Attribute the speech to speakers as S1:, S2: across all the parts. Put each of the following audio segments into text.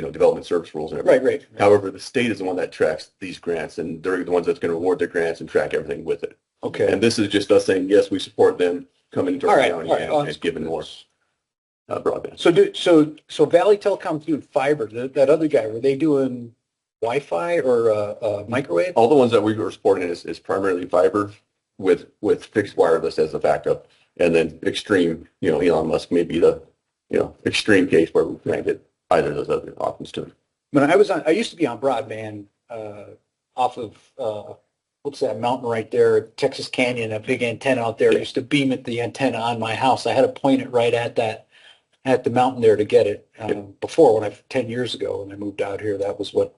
S1: development service rules and everything.
S2: Right, right.
S1: However, the state is the one that tracks these grants and they're the ones that's going to award the grants and track everything with it.
S2: Okay.
S1: And this is just us saying, yes, we support them coming to
S2: All
S1: our
S2: right,
S1: county
S2: all right,
S1: and- and giving more uh, broadband.
S2: So do, so, so Valley Telecom's doing fiber, that, that other guy, were they doing Wi-Fi or, uh, uh, microwave?
S1: All the ones that we were supporting is, is primarily fiber with, with fixed wireless as a backup. And then extreme, you know, Elon Musk may be the, you know, extreme case where we can't get either of those other options to it.
S2: When I was on, I used to be on broadband, uh, off of, uh, what's that mountain right there, Texas Canyon, that big antenna out there, I used to beam at the antenna on my house. I had to point it right at that, at the mountain there to get it.
S1: Yeah.
S2: Um, before, when I, ten years ago, when I moved out here, that was what,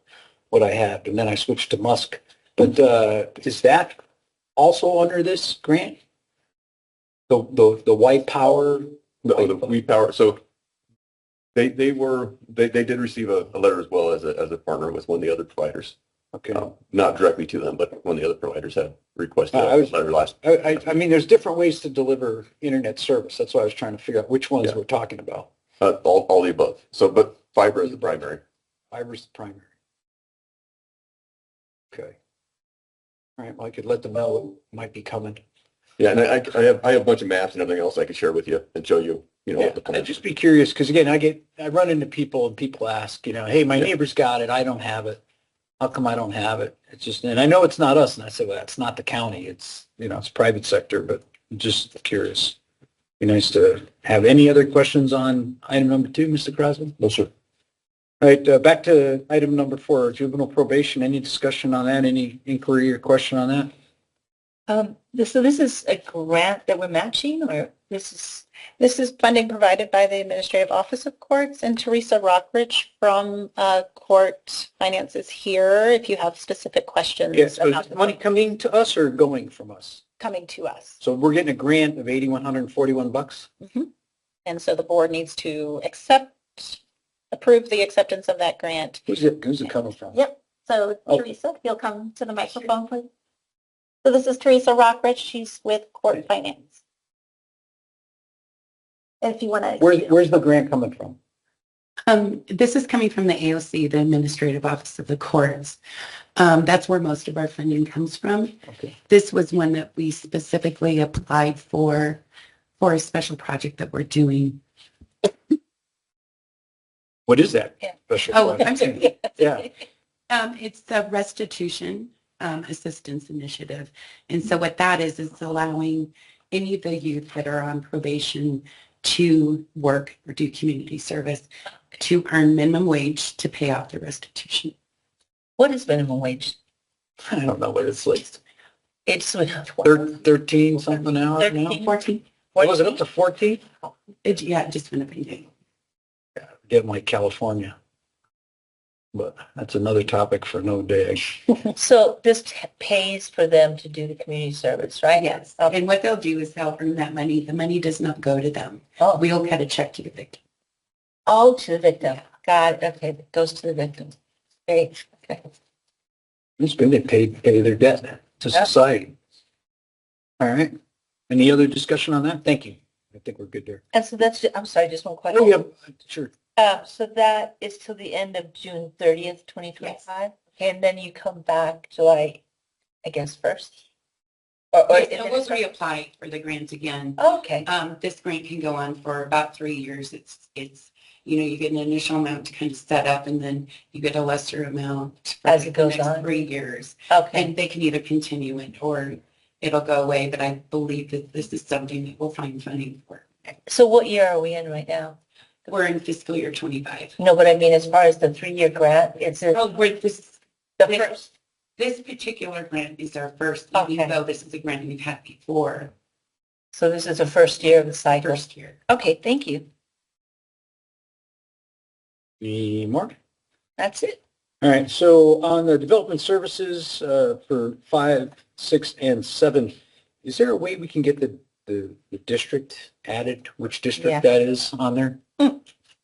S2: what I had. And then I switched to Musk. But, uh, is that also under this grant? The, the, the white power?
S1: No, the We Power, so they, they were, they, they did receive a, a letter as well as a, as a partner with one of the other providers.
S2: Okay.
S1: Um, Not directly to them, but one of the other providers had requested
S2: Ah, I- I
S1: a
S2: was-
S1: letter last.
S2: I, I, I mean, there's different ways to deliver internet service. That's why I was trying to figure out which ones
S1: Yeah.
S2: we're talking about.
S1: Uh, all, all the above. So, but fiber is the primary.
S2: Fiber's the primary. Okay. All right, well, I could let them know what might be coming.
S1: Yeah, and I, I have, I have a bunch of maps and everything else I could share with you and show you, you know, the
S2: I'd
S1: plans.
S2: just be curious, because again, I get, I run into people and people ask, you know, hey, my
S1: Yeah.
S2: neighbor's got it, I don't have it. How come I don't have it? It's just, and I know it's not us, and I said, well, it's not the county, it's, you know, it's private sector, but I'm just curious. Be nice to have any other questions on item number two, Mr. Crosby?
S1: No, sir.
S2: All right, uh, back to item number four, juvenile probation. Any discussion on that? Any inquiry or question on that?
S3: Um, this, so this is a grant that we're matching or this is, this is funding provided by the Administrative Office of Courts and Teresa Rockridge from, uh, Court Finances here, if you have specific questions.
S2: Yes, so
S3: about
S2: is money coming to us or going from us?
S3: Coming to us.
S2: So we're getting a grant of eighty-one hundred and forty-one bucks?
S3: And so the board needs to accept, approve the acceptance of that grant.
S2: Who's it, who's it coming from?
S3: Yep. So
S2: Oh.
S3: Teresa, if you'll come to the microphone, please. So this is Teresa Rockridge. She's with Court Finance. If you want to.
S2: Where's, where's the grant coming from?
S4: Um, this is coming from the AOC, the Administrative Office of the Courts. Um, that's where most of our funding comes from.
S2: Okay.
S4: This was one that we specifically applied for, for a special project that we're doing.
S2: What is that?
S3: Yeah.
S2: special
S4: Oh,
S2: project?
S4: I'm sorry.
S2: Yeah,
S4: Um, it's the Restitution um, Assistance Initiative. And so what that is, is allowing any of the youth that are on probation to work or do community service to earn minimum wage to pay off the restitution.
S3: What is minimum wage?
S2: I don't know what it's like.
S3: It's
S2: Thir- Thirteen something an hour now?
S3: 13.
S4: 14,
S2: What was it, up to fourteen?
S4: it, yeah, it just went up and down.
S2: Getting like California. But that's another topic for no day.
S3: So this t- pays for them to do the community service, right? Oh,
S4: Yes,
S3: Okay.
S4: and what they'll do is they'll earn that money. The money does not go to them.
S3: Oh, we
S4: We'll cut a check to the victim.
S3: all to the victim. God, okay, it goes to the victim. Great. Okay.
S2: It's good they pay, pay their debt to
S3: Yeah.
S2: society. All right. Any other discussion on that? Thank you. I think we're good there.
S3: And so that's, I'm sorry, just one question.
S2: Oh, yeah, sure.
S3: Uh, so that is till the end of June thirtieth, twenty twenty-five? And then you come back July, I guess, first? Or, or-
S4: So we'll reapply for the grant again.
S3: Okay,
S4: Um, this grant can go on for about three years. It's, it's, you know, you get an initial amount to kind of set up and then you get a lesser amount. for
S3: As it
S4: like
S3: goes
S4: the next
S3: on.
S4: Three years.
S3: okay.
S4: And they can either continue it or it'll go away, but I believe that this is something that we'll find funding for.
S3: So what year are we in right now?
S4: We're in fiscal year twenty-five.
S3: No, but I mean, as far as the three-year grant, it's in
S4: Oh, we're, this,
S3: the
S4: Yes.
S3: first.
S4: This particular grant is our first,
S3: Okay.
S4: even though this is a grant we've had before,
S3: So this is the first year of the cycle.
S4: first year.
S3: Okay, thank you.
S2: Any more?
S3: That's it.
S2: All right. So on the development services, uh, for five, six, and seven, is there a way we can get the, the, the district added, which
S3: Yeah.
S2: district that is on there?
S3: Hmm.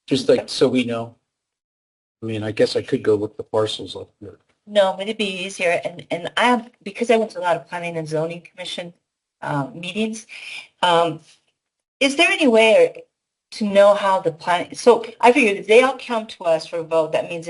S2: Just like, so we know. I mean, I guess I could go look the parcels up there.
S3: No, but it'd be easier. And, and I, have because I went to a lot of planning and zoning commission um, meetings, um, is there any way to know how the plan, so I figured if they all come to us for a vote, that means